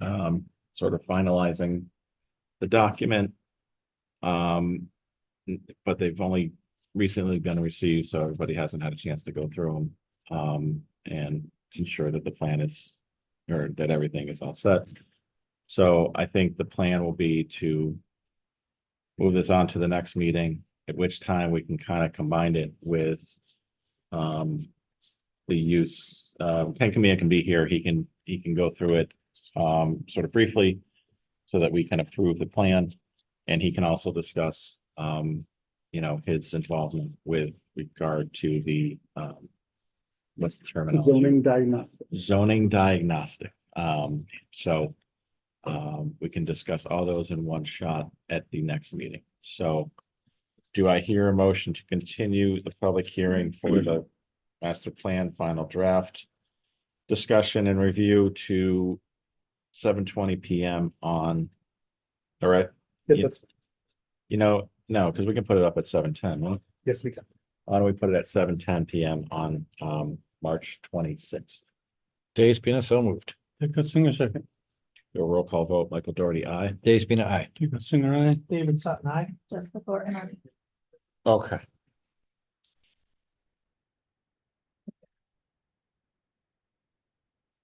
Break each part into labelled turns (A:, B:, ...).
A: um, sort of finalizing the document. Um, but they've only recently been received, so everybody hasn't had a chance to go through them. Um, and ensure that the plan is, or that everything is all set. So I think the plan will be to move this on to the next meeting, at which time we can kind of combine it with um, the use, uh, Ken Camilla can be here. He can, he can go through it um, sort of briefly so that we can approve the plan. And he can also discuss, um, you know, his involvement with regard to the, um, what's the terminology?
B: zoning diagnostic.
A: zoning diagnostic. Um, so um, we can discuss all those in one shot at the next meeting. So do I hear a motion to continue the public hearing for the master plan final draft discussion and review to seven twenty PM on, all right,
B: Yeah,
A: Yeah.
B: that's,
A: you know, no, because we can put it up at seven ten, right?
B: yes, we can.
A: Why don't we put it at seven ten PM on um March twenty-sixth?
C: Days Spina, so moved.
D: Dick Singer second.
A: Do a roll call vote, Michael Doherty, aye.
C: Days Spina, aye.
D: Dick Singer, aye.
E: David Sutton, aye.
F: Jessica Thornton, aye.
A: Okay.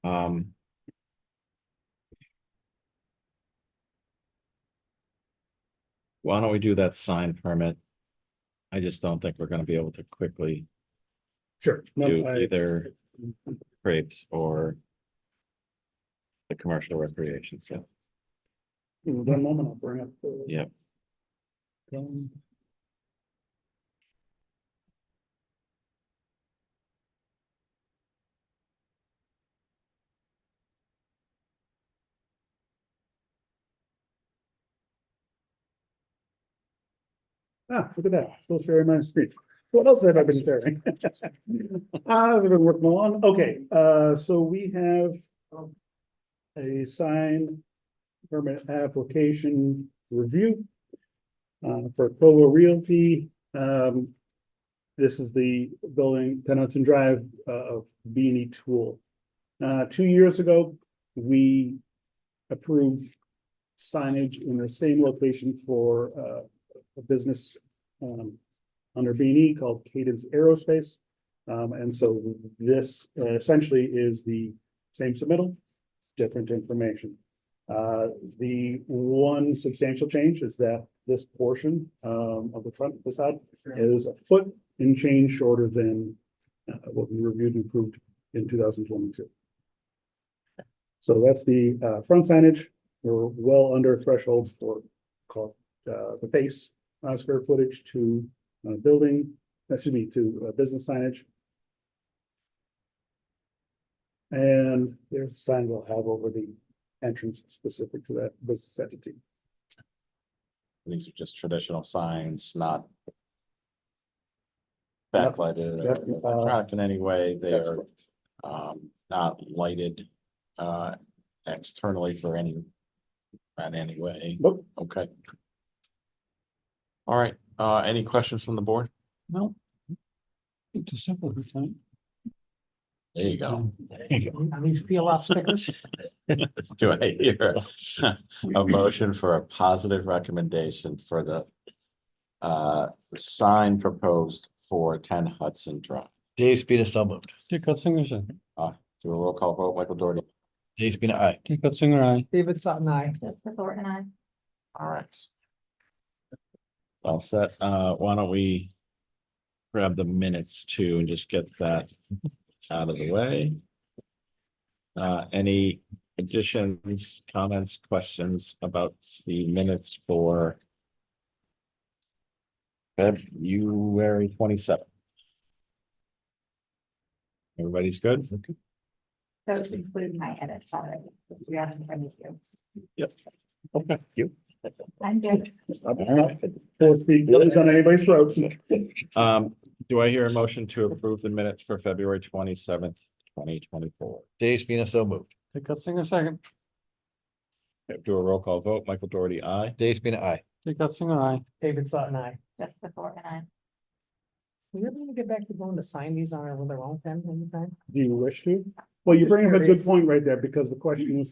A: Um. Why don't we do that sign permit? I just don't think we're gonna be able to quickly
B: Sure. No,
A: do
B: I-
A: either crepes or the commercial recreation stuff.
B: in One moment, I'll bring up. the-
A: Yep.
B: Um, Ah, look at that, still sharing my screen. What else have I been sharing? Ah, I've been working along, okay, uh, so we have um, a sign permit application review uh, for Provo Realty, um, this is the building, Ten Hudson Drive, uh, of Beanie Tool. Uh, two years ago, we approved signage in the same location for, uh, a business, um, under B and E called Cadence Aerospace. Um, and so this uh, essentially is the same submittal, different information. Uh, the one substantial change is that this portion, um, of the front facade is a foot and change shorter than uh, what we reviewed and approved in two thousand twenty-two. So that's the, uh, front signage. We're well under thresholds for call, uh, the face, uh, square footage to, uh, building, that should be to, uh, business signage. And there's a sign we'll have over the entrance specific to that business entity.
A: These are just traditional signs, not
B: Nothing-
A: backlighted
B: nothing, uh,
A: or tracked in any way. They
B: That's
A: are
B: correct.
A: um, not lighted, uh, externally for any, in any way.
B: Nope.
A: Okay. All right, uh, any questions from the board?
D: No. It's a simple good thing.
A: There you
D: Mm-hmm.
E: Oh.
A: go.
E: And these peel off stickers.
A: Do I hear a motion for a positive recommendation for the uh, the sign proposed for ten Hudson Drive?
C: Days Spina, so moved.
D: Dick Singer second.
A: Do a roll call vote, Michael Doherty.
C: Days Spina, aye.
D: Dick Singer, aye.
E: David Sutton, aye.
F: Jessica Thornton, aye.
A: All right. All set. Uh, why don't we grab the minutes too and just get that out of the way? Uh, any additions, comments, questions about the minutes for February twenty-seventh? Everybody's good?
F: Those include my edits already. We have them from you.
A: Okay. You?
F: I'm good.
B: Four feet, nobody's on anybody's throats.
A: Um, do I hear a motion to approve the minutes for February twenty-seventh, twenty twenty-four?
C: Days Spina, so moved.
D: Dick Singer second.
A: Do a roll call vote. Michael Doherty, aye.
C: Days Spina, aye.
D: Dick Singer, aye.
E: David Sutton, aye.
F: Jessica Thornton, aye.
E: We ever gonna get back to going to sign these on our, with our own pen anytime?
B: Do you wish to? Well, you bring up a good point right there, because the question is